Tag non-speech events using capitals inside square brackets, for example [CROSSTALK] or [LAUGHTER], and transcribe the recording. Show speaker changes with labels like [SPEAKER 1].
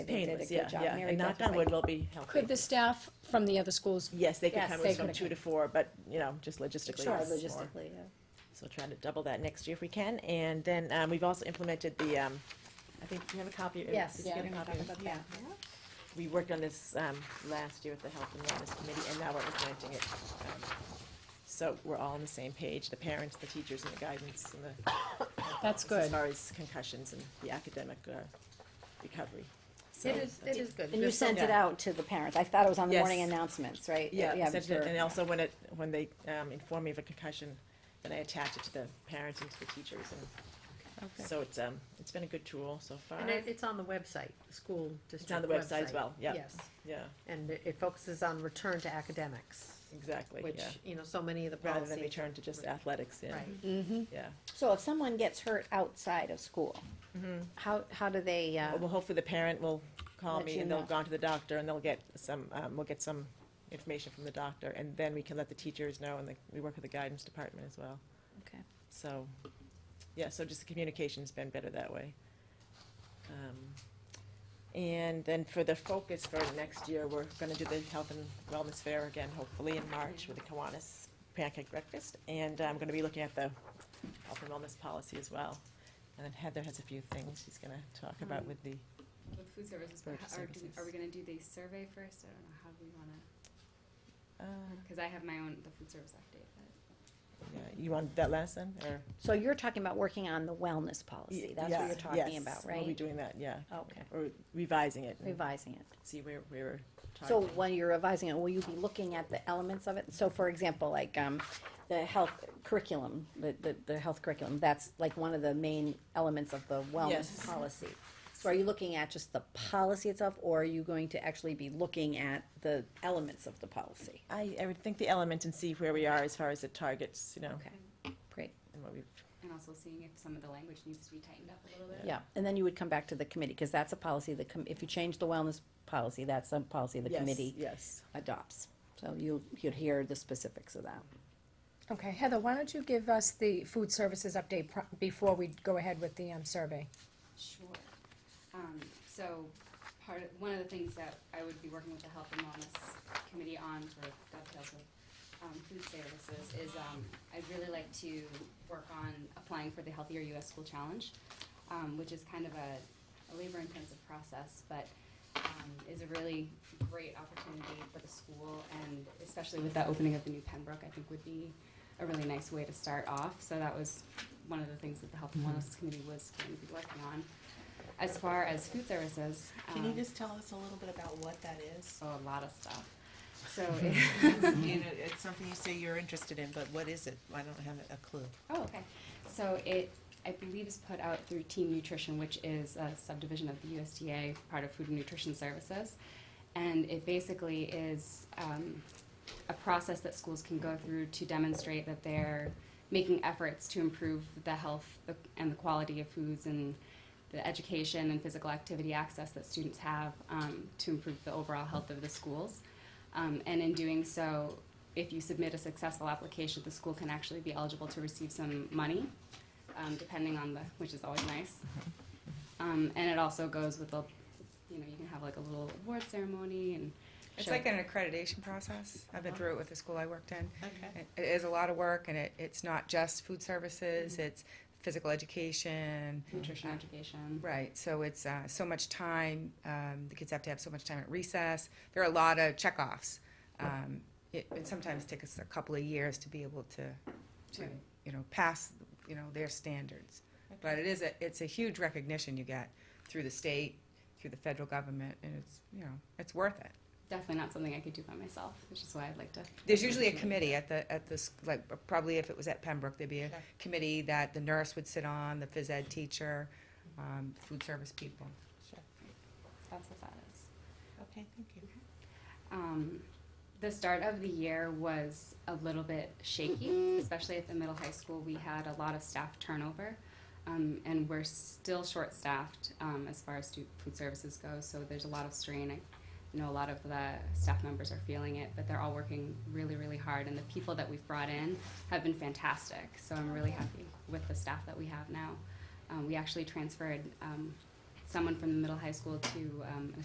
[SPEAKER 1] They did a
[SPEAKER 2] painless, yeah,
[SPEAKER 1] good job.
[SPEAKER 2] yeah.
[SPEAKER 1] Mary
[SPEAKER 2] And knock
[SPEAKER 1] Beth is
[SPEAKER 2] on
[SPEAKER 1] like-
[SPEAKER 2] wood, we'll be helping.
[SPEAKER 3] Could the staff from the other schools,
[SPEAKER 2] Yes, they could
[SPEAKER 1] Yes,
[SPEAKER 2] come
[SPEAKER 3] they
[SPEAKER 2] in from
[SPEAKER 3] could.
[SPEAKER 2] two to four, but, you know, just logistically.
[SPEAKER 1] Sure,
[SPEAKER 2] it's more.
[SPEAKER 1] logistically, yeah.
[SPEAKER 2] So trying to double that next year if we can. And then um, we've also implemented the, um, I think, do you have a copy? Or
[SPEAKER 1] Yes,
[SPEAKER 2] did you
[SPEAKER 3] yeah,
[SPEAKER 2] get a
[SPEAKER 3] we
[SPEAKER 2] copy?
[SPEAKER 3] talked about
[SPEAKER 1] that.
[SPEAKER 2] We worked on this um, last year with the Health and Wellness Committee, and now we're implementing it. Um, So we're all on the same page, the parents, the teachers, and the guidance, and the.
[SPEAKER 3] That's
[SPEAKER 2] As
[SPEAKER 3] good.
[SPEAKER 2] far as concussions and the academic uh, recovery. So
[SPEAKER 4] It is, it is good.
[SPEAKER 1] And you sent it out to the parents. I thought it was on the
[SPEAKER 2] Yes.
[SPEAKER 1] morning announcements, right?
[SPEAKER 2] Yeah,
[SPEAKER 1] Yeah,
[SPEAKER 2] essentially,
[SPEAKER 1] sure.
[SPEAKER 2] and also when it, when they um, inform me of a concussion, then I attach it to the parents and to the teachers, and so it's, um, it's been a good tool so far.
[SPEAKER 4] And it, it's on the website, the school district
[SPEAKER 2] the website as well, yeah.
[SPEAKER 4] Yes,
[SPEAKER 2] Yeah,
[SPEAKER 4] and it it focuses on return to academics,
[SPEAKER 2] exactly,
[SPEAKER 4] which,
[SPEAKER 2] yeah.
[SPEAKER 4] you know, so many of the
[SPEAKER 2] Rather than
[SPEAKER 4] policies.
[SPEAKER 2] return to just athletics, yeah,
[SPEAKER 4] Right.
[SPEAKER 3] Mhm.
[SPEAKER 2] yeah.
[SPEAKER 1] So if someone gets hurt outside of school, how, how do they, uh,
[SPEAKER 2] Well, hopefully the parent will call
[SPEAKER 1] Let
[SPEAKER 2] me
[SPEAKER 1] you
[SPEAKER 2] and they'll
[SPEAKER 1] know.
[SPEAKER 2] go on to the doctor and they'll get some, um, we'll get some information from the doctor, and then we can let the teachers know, and the- we work with the guidance department as well.
[SPEAKER 1] okay.
[SPEAKER 2] So, yeah, so just the communication's been better that way. Um, And then for the focus for next year, we're gonna do the health and wellness fair again, hopefully in March with the Kiwanis pancake breakfast. And I'm gonna be looking at the health and wellness policy as well. And then Heather has a few things she's gonna talk about with the,
[SPEAKER 5] With food services, but
[SPEAKER 2] Food
[SPEAKER 5] ho- are, do-
[SPEAKER 2] services. Uh-huh.
[SPEAKER 5] are we gonna do the survey first? I don't know how we wanna,
[SPEAKER 2] uh,
[SPEAKER 5] cause I have my own, the food service update, but.
[SPEAKER 2] yeah, you want that last then, or?
[SPEAKER 1] So you're talking about working on the wellness policy. That's what
[SPEAKER 2] Yeah,
[SPEAKER 1] you're talking
[SPEAKER 2] yes,
[SPEAKER 1] about,
[SPEAKER 2] We'll be
[SPEAKER 1] right?
[SPEAKER 2] doing that, yeah.
[SPEAKER 1] Okay.
[SPEAKER 2] Or revising it and
[SPEAKER 1] Revising it.
[SPEAKER 2] see where we were
[SPEAKER 1] So
[SPEAKER 2] targeting.
[SPEAKER 1] when you're revising it, will you be looking at the elements of it? So for example, like, um, the health curriculum, the, the, the health curriculum, that's like one of the main elements of the
[SPEAKER 2] Yes.
[SPEAKER 1] wellness policy. So are you looking at just the policy itself, or are you going to actually be looking at the elements of the policy?
[SPEAKER 2] I, I would think the element and see where we are as far as the targets, you know,
[SPEAKER 1] Okay, great,
[SPEAKER 2] and what we've,
[SPEAKER 5] And also seeing if some of the language needs to be tightened up a little bit.
[SPEAKER 1] yeah, and then you would come back to the committee, because that's a policy, the, com- if you change the wellness policy, that's a policy the
[SPEAKER 2] yes,
[SPEAKER 1] committee
[SPEAKER 2] yes.
[SPEAKER 1] adopts. So you, you'd hear the specifics of that.
[SPEAKER 6] Okay, Heather, why don't you give us the food services update pro- before we go ahead with the um, survey?
[SPEAKER 5] Sure. Um, so part of, one of the things that I would be working with the Health and Wellness Committee on for dovetails with, um, food services is, um, I'd really like to work on applying for the Healthier US School Challenge, um, which is kind of a, a labor-intensive process, but, um, is a really great opportunity for the school and especially with the opening of the new Pembroke, I think would be a really nice way to start off. So that was one of the things that the Health
[SPEAKER 7] Mm-hmm.
[SPEAKER 5] and Wellness Committee was going to be working on. As far as food services,
[SPEAKER 7] Can you
[SPEAKER 5] um,
[SPEAKER 7] just tell us a little bit about what that is?
[SPEAKER 5] so a lot of stuff. So,
[SPEAKER 7] [LAUGHS] You know, it's something you say you're interested in, but what is it? I don't have a clue.
[SPEAKER 5] oh, okay. So it, I believe, is put out through Team Nutrition, which is a subdivision of the USDA, part of Food and Nutrition Services. And it basically is um, a process that schools can go through to demonstrate that they're making efforts to improve the health the- and the quality of foods and the education and physical activity access that students have um, to improve the overall health of the schools. Um, and in doing so, if you submit a successful application, the school can actually be eligible to receive some money, um, depending on the, which is always nice.
[SPEAKER 8] Mm-hmm.
[SPEAKER 5] Um, and it also goes with the, you know, you can have like a little award ceremony and
[SPEAKER 8] It's
[SPEAKER 5] show-
[SPEAKER 8] like an accreditation process. I've been through it with the school I worked in.
[SPEAKER 7] Okay.
[SPEAKER 8] It it is a lot of work, and it, it's not just food services, it's physical education.
[SPEAKER 5] nutrition education.
[SPEAKER 8] Right, so it's uh, so much time, um, the kids have to have so much time at recess. There are a lot of checkoffs. Um, it, it sometimes takes us a couple of years to be able to, to
[SPEAKER 5] Right.
[SPEAKER 8] you know, pass, you know, their standards. But it is a, it's a huge recognition you get through the state, through the federal government, and it's, you know, it's worth it.
[SPEAKER 5] Definitely not something I could do by myself, which is why I'd like to.
[SPEAKER 8] There's usually a committee at the, at the, s- like, probably if it was at Pembroke, there'd be a
[SPEAKER 7] Sure.
[SPEAKER 8] committee that the nurse would sit on, the phys ed teacher, um, food service people.
[SPEAKER 5] That's what that is.
[SPEAKER 7] Okay, thank you.
[SPEAKER 5] um, the start of the year was a little bit shaky, especially at the middle high school. We had a lot of staff turnover, um, and we're still short staffed um, as far as stu- food services goes. So there's a lot of strain. I know a lot of the staff members are feeling it, but they're all working really, really hard. And the people that we've brought in have been fantastic. So I'm really happy with the staff that we have now. Um, we actually transferred um, someone from the middle high school to um, an